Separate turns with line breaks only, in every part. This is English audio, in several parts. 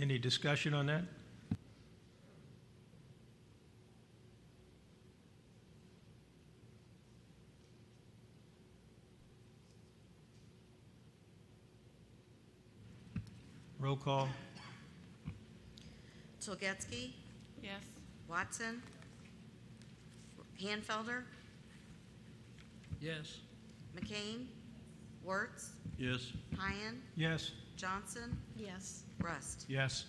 Any discussion on that? Roll call,
Tolgetsky,
Yes.
Watson, Hanfelder,
Yes.
McCain, Wertz,
Yes.
Pyan,
yes?
Johnson,
Yes.
Rust.
Yes.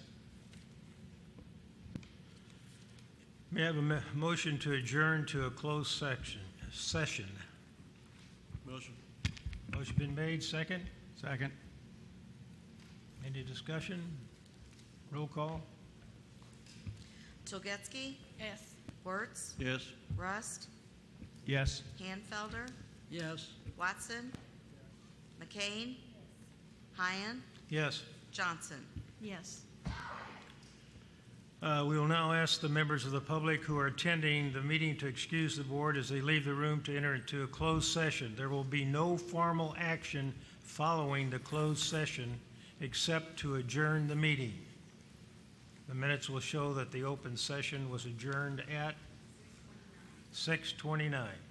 May I have a mo- motion to adjourn to a closed section, session?
Motion.
Motion been made, second?
Second.
Any discussion? Roll call?
Tolgetsky,
Yes.
Wertz,
Yes.
Rust,
Yes.
Hanfelder,
Yes.
Watson, McCain, Pyan,
Yes.
Johnson.
Yes.
Uh, We will now ask the members of the public who are attending the meeting to excuse the board as they leave the room to enter into a closed session. There will be no formal action following the closed session except to adjourn the meeting. The minutes will show that the open session was adjourned at 6:29.